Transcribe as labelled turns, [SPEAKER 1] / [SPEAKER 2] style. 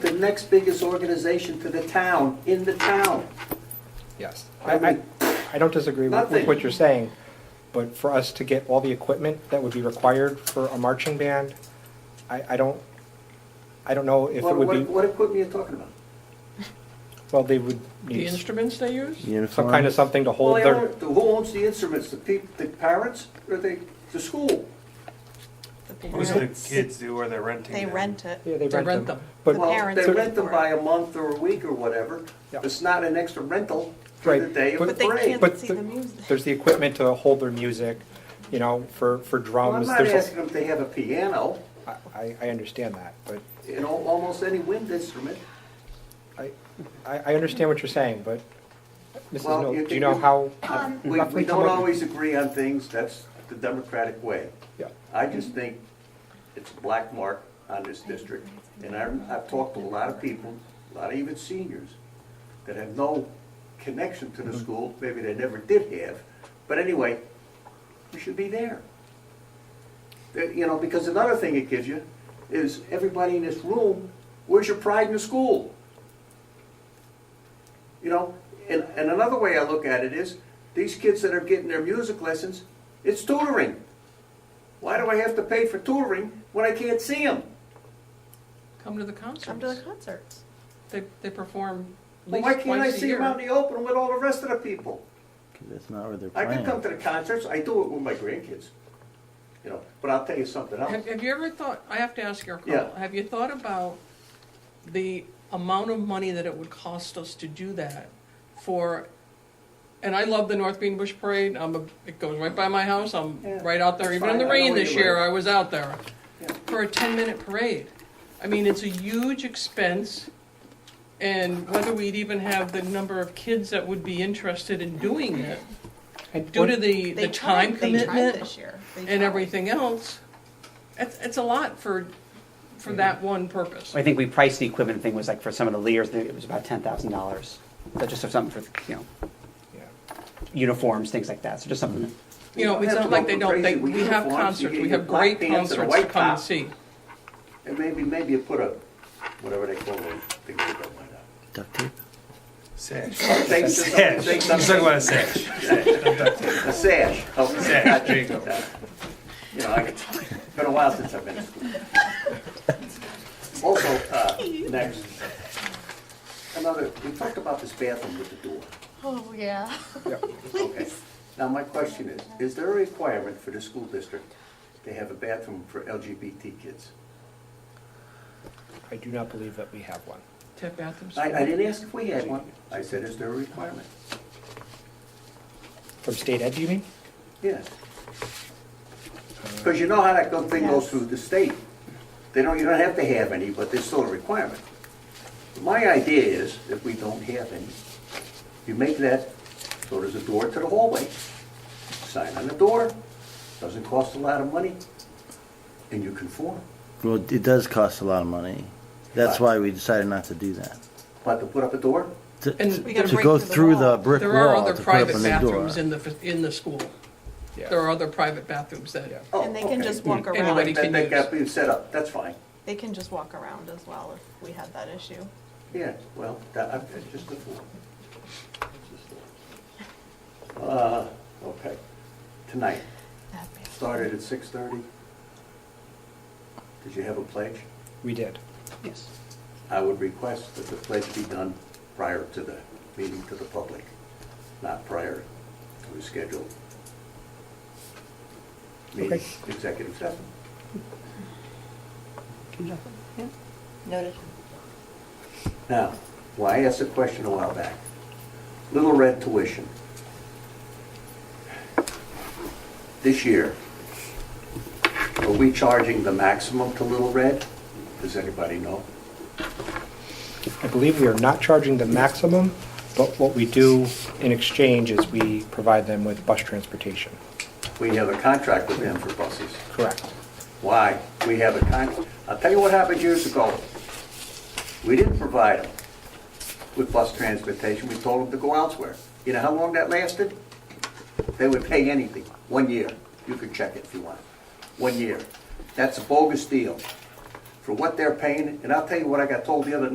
[SPEAKER 1] the next biggest organization to the town, in the town.
[SPEAKER 2] Yes. I, I, I don't disagree with- with
[SPEAKER 1] Nothing.
[SPEAKER 2] what you're saying, but for us to get all the equipment that would be required for a marching band, I, I don't, I don't know if it
[SPEAKER 1] What,
[SPEAKER 2] would
[SPEAKER 1] what,
[SPEAKER 2] be,
[SPEAKER 1] what equipment are you talking about?
[SPEAKER 2] well, they would
[SPEAKER 3] The
[SPEAKER 2] need
[SPEAKER 3] instruments they use?
[SPEAKER 2] some kind of something to
[SPEAKER 1] Well,
[SPEAKER 2] hold
[SPEAKER 1] they
[SPEAKER 2] their,
[SPEAKER 1] own- Who owns the instruments, the peop, the parents, or the, the school?
[SPEAKER 4] What do the kids do, or they're renting?
[SPEAKER 5] They
[SPEAKER 4] them?
[SPEAKER 5] rent it.
[SPEAKER 2] yeah, they
[SPEAKER 3] They
[SPEAKER 2] rent
[SPEAKER 3] rent
[SPEAKER 2] them.
[SPEAKER 3] them.
[SPEAKER 2] But,
[SPEAKER 1] Well,
[SPEAKER 5] parents
[SPEAKER 1] they
[SPEAKER 5] pay
[SPEAKER 1] rent them
[SPEAKER 5] for it.
[SPEAKER 1] by a month or a week or whatever.
[SPEAKER 2] Yeah.
[SPEAKER 1] It's not an extra rental for
[SPEAKER 2] Right,
[SPEAKER 1] the day of the
[SPEAKER 2] but-
[SPEAKER 5] But they
[SPEAKER 1] parade.
[SPEAKER 2] But
[SPEAKER 5] can't see
[SPEAKER 2] the-
[SPEAKER 5] the music.
[SPEAKER 2] there's the equipment to hold their music, you know, for, for
[SPEAKER 1] Well, I'm
[SPEAKER 2] drums,
[SPEAKER 1] not
[SPEAKER 2] there's,
[SPEAKER 1] asking them if they have a piano,
[SPEAKER 2] a- I, I understand that, but
[SPEAKER 1] you know, almost any wind instrument.
[SPEAKER 2] I, I, I understand what you're saying, but Mrs.
[SPEAKER 1] Well,
[SPEAKER 2] Mill,
[SPEAKER 1] you
[SPEAKER 2] do you
[SPEAKER 1] can-
[SPEAKER 2] know
[SPEAKER 1] you-
[SPEAKER 2] how?
[SPEAKER 5] Um,
[SPEAKER 1] We, we
[SPEAKER 2] roughly come
[SPEAKER 1] don't
[SPEAKER 2] up-
[SPEAKER 1] always agree on things, that's the democratic way.
[SPEAKER 2] Yeah,
[SPEAKER 1] I just think it's a black mark on this district, and I, I've talked to a lot of people, a lot of even seniors, that have no connection to the school, maybe they never did have, but anyway, we should be there. Uh, You know, because another thing it gives you is everybody in this room, where's your pride in the school? You know, and, and another way I look at it is, these kids that are getting their music lessons, it's tutoring. Why do I have to pay for touring when I can't see them?
[SPEAKER 3] Come to the concerts.
[SPEAKER 5] Come to the concerts.
[SPEAKER 3] They, they perform at
[SPEAKER 1] Well, why
[SPEAKER 3] least
[SPEAKER 1] can't I
[SPEAKER 3] twice a
[SPEAKER 1] see them out
[SPEAKER 3] year.
[SPEAKER 1] in the open with all the rest of the people?
[SPEAKER 6] That's not where they're
[SPEAKER 1] I can
[SPEAKER 6] playing.
[SPEAKER 1] come to the concerts, I do it with my grandkids, you know, but I'll tell you something else.
[SPEAKER 3] Have, have you ever thought, I have to ask you, Carl,
[SPEAKER 1] Yeah.
[SPEAKER 3] have you thought about the amount of money that it would cost us to do that for, and I love the North Bean Bush Parade, I'm a, it goes right by my house, I'm
[SPEAKER 1] Yeah.
[SPEAKER 3] right out there,
[SPEAKER 1] It's
[SPEAKER 3] even in the
[SPEAKER 1] fine, I know
[SPEAKER 3] rain
[SPEAKER 1] where
[SPEAKER 3] this
[SPEAKER 1] you live.
[SPEAKER 3] year, I was out there.
[SPEAKER 1] Yeah.
[SPEAKER 3] For a ten-minute parade. I mean, it's a huge expense, and whether we'd even have the number of kids that would be interested in doing it,
[SPEAKER 2] And
[SPEAKER 3] due
[SPEAKER 2] what-
[SPEAKER 3] to the, the
[SPEAKER 5] They
[SPEAKER 3] time
[SPEAKER 5] tried- They tried
[SPEAKER 3] commitment
[SPEAKER 5] this year. They
[SPEAKER 3] and
[SPEAKER 5] tried.
[SPEAKER 3] everything else, it's, it's a lot for, for that one purpose.
[SPEAKER 7] I think we priced the equipment thing was like for some of the Lears, it was about ten thousand dollars. So just for something for, you know,
[SPEAKER 2] yeah.
[SPEAKER 7] uniforms, things like that, so just something.
[SPEAKER 3] You know,
[SPEAKER 1] You
[SPEAKER 3] it's
[SPEAKER 1] don't have
[SPEAKER 3] not
[SPEAKER 1] to
[SPEAKER 3] like
[SPEAKER 1] go crazy
[SPEAKER 3] they don't, they,
[SPEAKER 1] with
[SPEAKER 3] we have
[SPEAKER 1] uniforms. You
[SPEAKER 3] concerts,
[SPEAKER 1] get
[SPEAKER 3] we
[SPEAKER 1] your
[SPEAKER 3] have
[SPEAKER 1] black
[SPEAKER 3] great
[SPEAKER 1] pants and a
[SPEAKER 3] concerts to
[SPEAKER 1] white
[SPEAKER 3] come
[SPEAKER 1] top.
[SPEAKER 3] and see.
[SPEAKER 1] And maybe, maybe you put a, whatever they call those things that don't mind that.
[SPEAKER 6] Duct tape.
[SPEAKER 4] Sash.
[SPEAKER 1] Things that-
[SPEAKER 4] Sash. I'm
[SPEAKER 1] things
[SPEAKER 4] talking
[SPEAKER 1] that-
[SPEAKER 4] about a sash.
[SPEAKER 1] A sash. Oh,
[SPEAKER 4] Sash, there you go.
[SPEAKER 1] You know, I could- it's been a while since I've been to school. Also, uh, next, another, we talked about this bathroom with the door.
[SPEAKER 5] Oh, yeah.
[SPEAKER 1] Okay. Now, my question is, is there a requirement for the school district to have a bathroom for LGBT kids?
[SPEAKER 2] I do not believe that we have one.
[SPEAKER 3] To have bathrooms.
[SPEAKER 1] I, I didn't ask if we had one. I said, is there a requirement?
[SPEAKER 2] From state ed, do you mean?
[SPEAKER 1] Yes. Because you know how that go- thing goes through the state. They don't, you don't have to have any, but there's still a requirement. My idea is, if we don't have any, you make that, so there's a door to the hallway, sign on the door, doesn't cost a lot of money, and you conform.
[SPEAKER 6] Well, it does cost a lot of money. That's why we decided not to do that.
[SPEAKER 1] But to put up a door,
[SPEAKER 6] To,
[SPEAKER 3] And
[SPEAKER 5] We gotta
[SPEAKER 6] to
[SPEAKER 5] break
[SPEAKER 6] go
[SPEAKER 5] through
[SPEAKER 6] through
[SPEAKER 5] the
[SPEAKER 6] the
[SPEAKER 5] wall.
[SPEAKER 6] brick
[SPEAKER 3] There are
[SPEAKER 6] wall
[SPEAKER 3] other
[SPEAKER 6] to put up a
[SPEAKER 3] private
[SPEAKER 6] new door.
[SPEAKER 3] bathrooms in the, in the school.
[SPEAKER 2] Yeah.
[SPEAKER 3] There are other private bathrooms that,
[SPEAKER 2] Yeah.
[SPEAKER 1] oh,
[SPEAKER 5] And they can
[SPEAKER 1] okay.
[SPEAKER 5] just walk
[SPEAKER 3] Anybody
[SPEAKER 5] around.
[SPEAKER 1] That,
[SPEAKER 3] can
[SPEAKER 1] that
[SPEAKER 3] use.
[SPEAKER 1] got be set up, that's fine.
[SPEAKER 5] They can just walk around as well if we had that issue.
[SPEAKER 1] Yeah, well, that, I'm it's just a fool. Uh, okay, tonight,
[SPEAKER 5] That'd be-
[SPEAKER 1] started at six thirty. Did you have a pledge?
[SPEAKER 2] We did.
[SPEAKER 7] Yes.
[SPEAKER 1] I would request that the pledge be done prior to the meeting to the public, not prior to the scheduled meeting,
[SPEAKER 2] Okay.
[SPEAKER 1] executive session.
[SPEAKER 8] Noted.
[SPEAKER 1] Now, well, I asked a question a while back. Little Red tuition. This year, are we charging the maximum to Little Red? Does anybody know?
[SPEAKER 2] I believe we are not charging the maximum, but what we do in exchange is we provide them with bus transportation.
[SPEAKER 1] We have a contract with them for buses.
[SPEAKER 2] Correct.
[SPEAKER 1] Why? We have a con, I'll tell you what happened years ago. We didn't provide them with bus transportation, we told them to go elsewhere. You know how long that lasted? They would pay anything, one year. You can check it if you want. One year. That's a bogus deal for what they're paying, and I'll tell you what I got told the other